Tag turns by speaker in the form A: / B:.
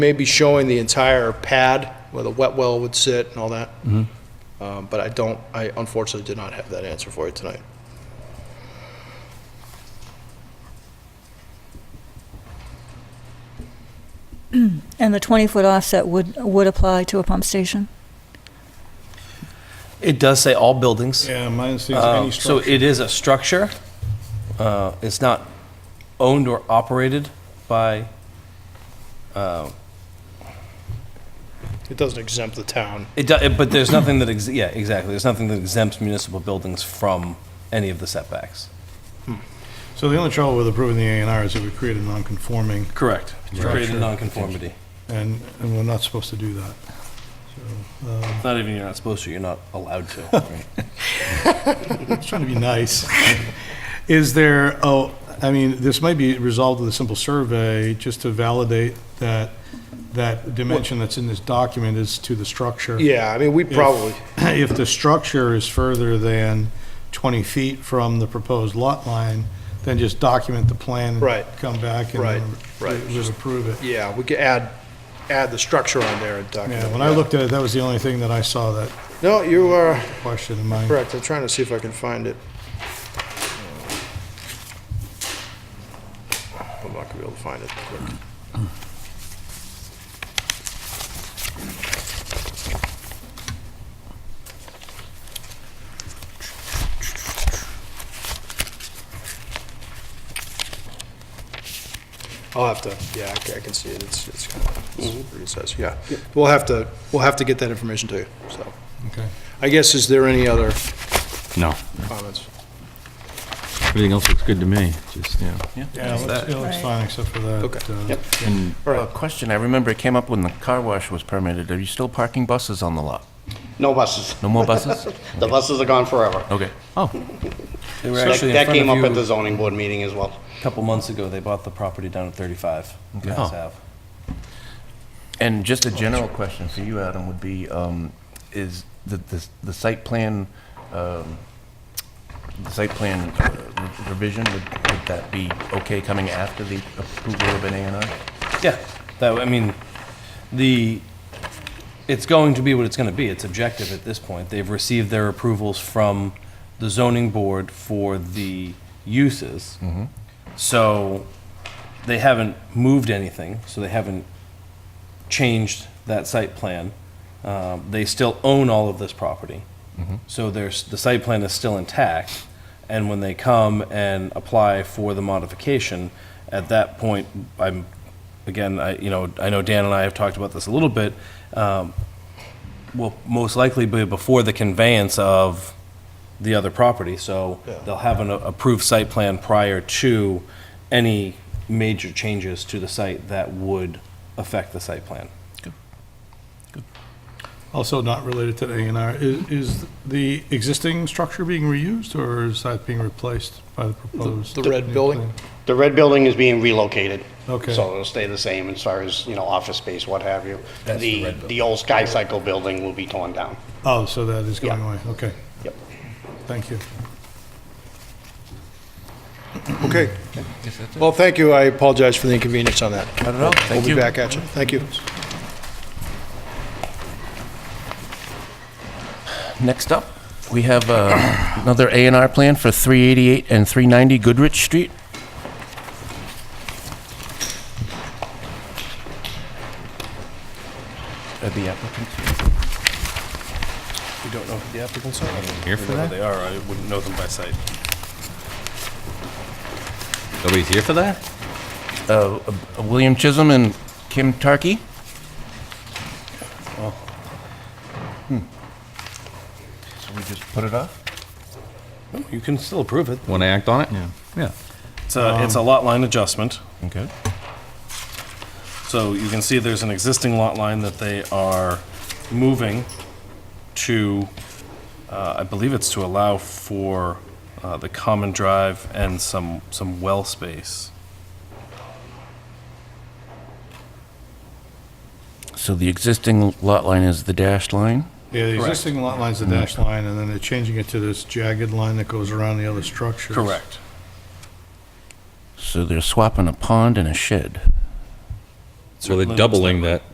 A: Maybe showing the entire pad where the wet well would sit and all that. Um, But I don't, I unfortunately did not have that answer for you tonight.
B: And the 20-foot offset would, would apply to a pump station?
C: It does say all buildings.
D: Yeah, mine says
C: Uh,
D: any
C: So
D: structure.
C: it is a structure. Uh, It's not owned or operated by,
A: It doesn't exempt the town.
C: it, do- but there's nothing that, ex- yeah, exactly. There's nothing that exempts municipal buildings from any of the setbacks.
D: So the only trouble with approving the A and R is that we create a non-conforming,
C: Correct. Created
D: Structure.
C: nonconformity.
D: and, and we're not supposed to do that.
C: It's Not even you're not supposed to, you're not allowed to.
D: I was trying to be nice. Is there, oh, I mean, this might be resolved with a simple survey, just to validate that, that dimension that's in this document is to the structure.
A: Yeah, I mean, we probably,
D: If the structure is further than 20 feet from the proposed lot line, then just document the plan. and
A: Right.
D: Come back and.
A: Right, right.
D: Just approve it.
A: yeah, we could add, add the structure on there and document.
D: Yeah, when
A: it.
D: I looked at it, that was the only thing that I saw that
A: No, you are
D: question in mind.
A: correct. I'm trying to see if I can find it. I'm not gonna be able to find it quick. I'll have to, yeah, I ca- I can see it. It's, it's kind of, it's pretty size, yeah. We'll have to, we'll have to get that information to you, so.
D: Okay.
A: I guess, is there any other
E: No,
A: comments?
E: everything else looks good to me, just, yeah.
D: Yeah, it looks- it looks
B: Right.
D: fine except for that.
A: Okay.
D: uh,
A: All
F: A
A: right,
F: question, I remember it came up when the car wash was permitted. Are you still parking buses on the lot?
G: No buses.
F: No more buses?
G: The buses are gone forever.
F: Okay.
C: They were
G: That
C: actually in
G: that came up at
C: front
G: the
C: of you
G: zoning board meeting as well.
C: a couple months ago. They bought the property down at 35. Mass
F: Oh.
C: Ave.
F: And just a general question for you, Adam, would be, um, is the, the, the site plan, um, the site plan uh, re- revision, would, would that be okay coming after the approval of an A and R?
C: Yeah, that, I mean, the, it's going to be what it's gonna be, it's objective at this point. They've received their approvals from the zoning board for the uses. So, they haven't moved anything, so they haven't changed that site plan. Um, They still own all of this property. So there's, the site plan is still intact, and when they come and apply for the modification, at that point, I'm, again, I, you know, I know Dan and I have talked about this a little bit, um, will most likely be before the conveyance of the other property, so they'll have an approved site plan prior to any major changes to the site that would affect the site plan.
D: Also not related to the A and R, is, is the existing structure being reused or is that being replaced by the proposed?
A: the red
D: new
A: building?
D: plan?
G: The red building is being relocated.
D: Okay.
G: So it'll stay the same as far as, you know, office space, what have you. The, the old Sky Cycle building will be torn down.
D: Oh, so that is going
G: Yeah.
D: away, okay,
G: Yep.
D: thank you.
F: uh,
A: okay. Well, thank you, I apologize for the inconvenience on that.
F: Not at all,
A: We'll
F: thank
A: be
F: you.
A: back at you, thank you.
F: Next up, we have uh, another A and R plan for 388 and 390 Goodrich Street. Uh, The applicant?
C: We don't know who the applicants are. Here for that? They are, I wouldn't know them by sight.
E: Nobody's here for that?
F: Uh, uh, William Chisholm and Kim Tarkey? So we just put it off?
C: You can still approve it.
E: Want to act on it? Yeah. Yeah.
C: It's a, it's a lot line adjustment,
F: Okay.
C: so you can see there's an existing lot line that they are moving to, uh, I believe it's to allow for uh, the common drive and some, some well space.
F: So the existing lot line is the dashed line?
D: Yeah, the existing lot line's the dash line and then they're changing it to this jagged line that goes around the other structures.
F: So they're swapping a pond and a shed.
E: it
H: So
E: certainly
H: they're
E: looks
H: doubling
E: way.
H: that